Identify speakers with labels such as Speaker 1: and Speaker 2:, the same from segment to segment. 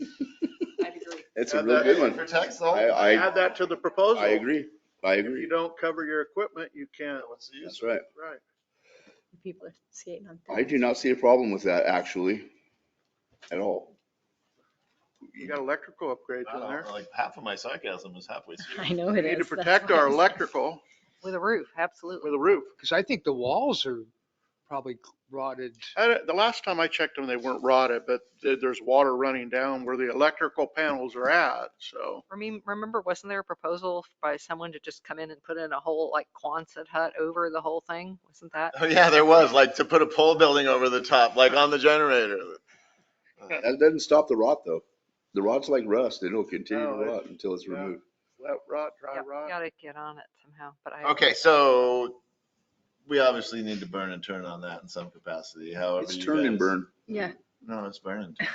Speaker 1: I agree.
Speaker 2: It's a real good one.
Speaker 3: Protects the
Speaker 2: I,
Speaker 3: whole.
Speaker 2: I,
Speaker 4: Add that to the proposal.
Speaker 2: I agree. I
Speaker 4: If you
Speaker 2: agree.
Speaker 4: don't cover your equipment, you can't,
Speaker 3: What's the use?
Speaker 2: That's right.
Speaker 4: right.
Speaker 5: People are skating on.
Speaker 2: I do not see a problem with that actually at all.
Speaker 4: You got electrical upgrades
Speaker 3: I
Speaker 4: in
Speaker 3: don't
Speaker 4: there.
Speaker 3: know, Like half of my sarcasm is halfway through.
Speaker 5: I know
Speaker 4: We
Speaker 5: Oh, it is.
Speaker 4: need to
Speaker 5: that's
Speaker 4: protect
Speaker 5: why.
Speaker 4: our electrical
Speaker 5: With a roof, absolutely.
Speaker 4: with a roof.
Speaker 6: Because I think the walls are probably rotted.
Speaker 4: I don't- The last time I checked them, they weren't rotted, but there- there's water running down where the electrical panels are at, so.
Speaker 5: I mean, remember, wasn't there a proposal by someone to just come in and put in a whole like Quonset hut over the whole thing? Wasn't that?
Speaker 3: Oh, yeah, there was, like, to put a pole building over the top, like on the generator.
Speaker 2: That doesn't stop the rot though. The rot's like rust. It'll continue to
Speaker 4: No, it-
Speaker 2: rot until it's
Speaker 4: yeah.
Speaker 2: removed.
Speaker 4: Wet rot, dry
Speaker 5: Yep,
Speaker 4: rot.
Speaker 5: Gotta get on it somehow, but I.
Speaker 3: Okay, so we obviously need to burn and turn on that in some capacity, however
Speaker 2: It's
Speaker 3: you
Speaker 2: turn and
Speaker 3: guys-
Speaker 2: burn.
Speaker 5: Yeah.
Speaker 3: No, it's burn and turn.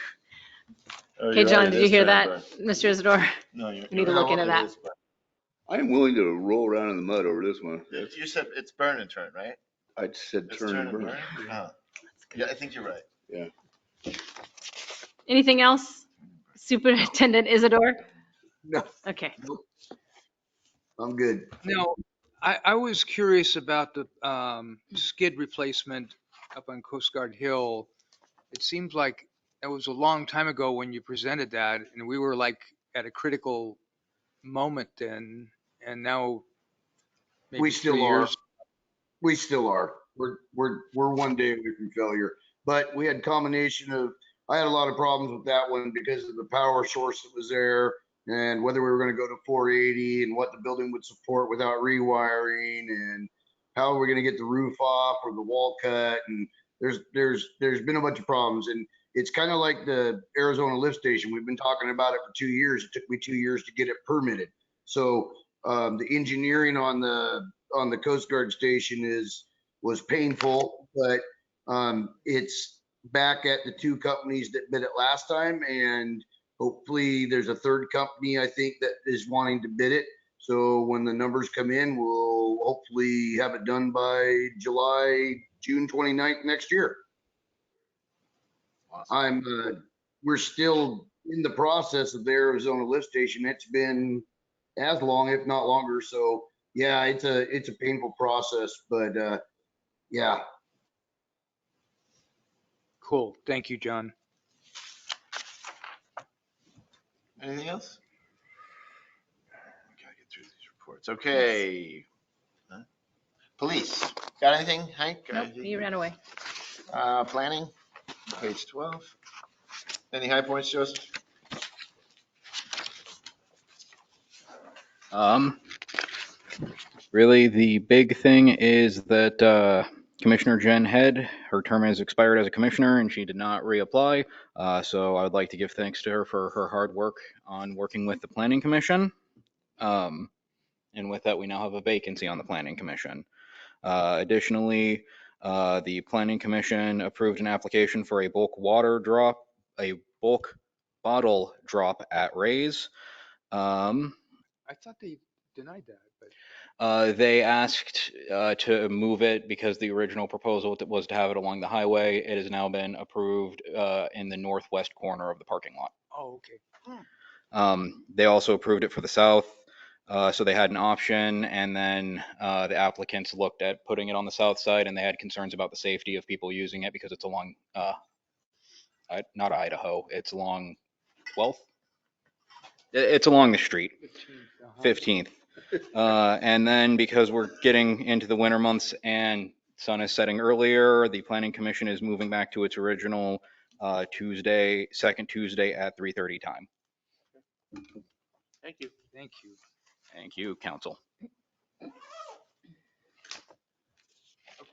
Speaker 3: Oh,
Speaker 5: Okay,
Speaker 3: you're
Speaker 5: John,
Speaker 3: right, it
Speaker 5: did you
Speaker 3: is
Speaker 5: hear
Speaker 3: turn
Speaker 5: that,
Speaker 3: and burn.
Speaker 5: Mr. Isidore?
Speaker 3: No, you're.
Speaker 5: We need to look into that.
Speaker 2: I am willing to roll around in the mud over this one.
Speaker 3: You said it's burn and turn, right?
Speaker 2: I said
Speaker 3: It's
Speaker 2: turn and burn.
Speaker 3: Huh. Oh. Yeah, I think you're right.
Speaker 5: Anything else, Superintendent Isidore?
Speaker 6: No.
Speaker 5: Okay.
Speaker 7: I'm good.
Speaker 6: No, I, I was curious about the um, skid replacement up on Coast Guard Hill. It seems like that was a long time ago when you presented that, and we were like at a critical moment then, and now. maybe
Speaker 7: We
Speaker 6: three
Speaker 7: still are.
Speaker 6: years-
Speaker 7: We still are. We're, we're, we're one day away from failure. But we had combination of, I had a lot of problems with that one because of the power source that was there and whether we were going to go to 480 and what the building would support without rewiring and how we're going to get the roof off or the wall cut. And there's, there's, there's been a bunch of problems. And it's kind of like the Arizona lift station. We've been talking about it for two years. It took me two years to get it permitted. So um, the engineering on the on the Coast Guard station is, was painful, but um, it's back at the two companies that bid it last time. And hopefully there's a third company, I think, that is wanting to bid it. So when the numbers come in, we'll hopefully have it done by July, June 29th next year. I'm, uh, we're still in the process of the Arizona lift station. It's been as long, if not longer. So yeah, it's a, it's a painful process, but, uh, yeah,
Speaker 6: Cool. Thank you, John.
Speaker 3: Anything else? I Gotta get through these reports. Okay. Huh? Police, got anything, Hank?
Speaker 5: Nope, you ran away.
Speaker 3: Uh, planning, page twelve. Any high points, Joseph?
Speaker 8: Um, really, the big thing is that uh, Commissioner Jen Head, her term has expired as a commissioner and she did not reapply. Uh, so I would like to give thanks to her for her hard work on working with the Planning Commission. Um, and with that, we now have a vacancy on the Planning Commission. Uh, additionally, uh, the Planning Commission approved an application for a bulk water drop, a bulk bottle drop at Ray's. Um,
Speaker 6: I thought they denied that, but.
Speaker 8: uh, they asked uh, to move it because the original proposal that was to have it along the highway. It has now been approved uh, in the northwest corner of the parking lot.
Speaker 6: Oh, okay.
Speaker 8: Um, They also approved it for the south, uh, so they had an option, and then uh, the applicants looked at putting it on the south side, and they had concerns about the safety of people using it because it's along, uh, I- not Idaho, it's along 12th? It- It's along the street.
Speaker 6: 15, uh-huh.
Speaker 8: 15th. Uh, And then because we're getting into the winter months and sun is setting earlier, the planning commission is moving back to its original uh, Tuesday, second Tuesday at 3:30 time.
Speaker 4: Thank you.
Speaker 6: Thank you.
Speaker 8: Thank you, council.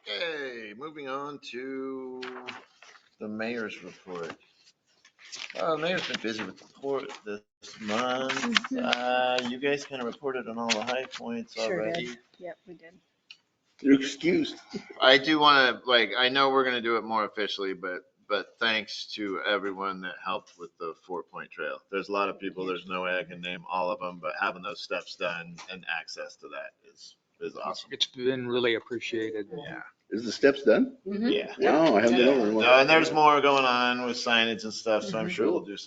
Speaker 3: Okay, moving on to the mayor's report. Uh, mayor's been busy with the port this month.
Speaker 5: Mm-hmm.
Speaker 3: Uh, you guys kind of reported on all the high points
Speaker 1: Sure did.
Speaker 3: already.
Speaker 1: Yep, we did.
Speaker 2: You're excused.
Speaker 3: I do want to, like, I know we're going to do it more officially, but, but thanks to everyone that helped with the four point trail. There's a lot of people, there's no way I can name all of them, but having those steps done and access to that is, is awesome.
Speaker 6: It's been really appreciated.
Speaker 3: Yeah.
Speaker 2: Is the steps done?
Speaker 3: Yeah.
Speaker 5: Mm-hmm.
Speaker 2: No, I haven't been over.
Speaker 3: No, And there's more going on with signage and stuff, so I'm sure we'll do something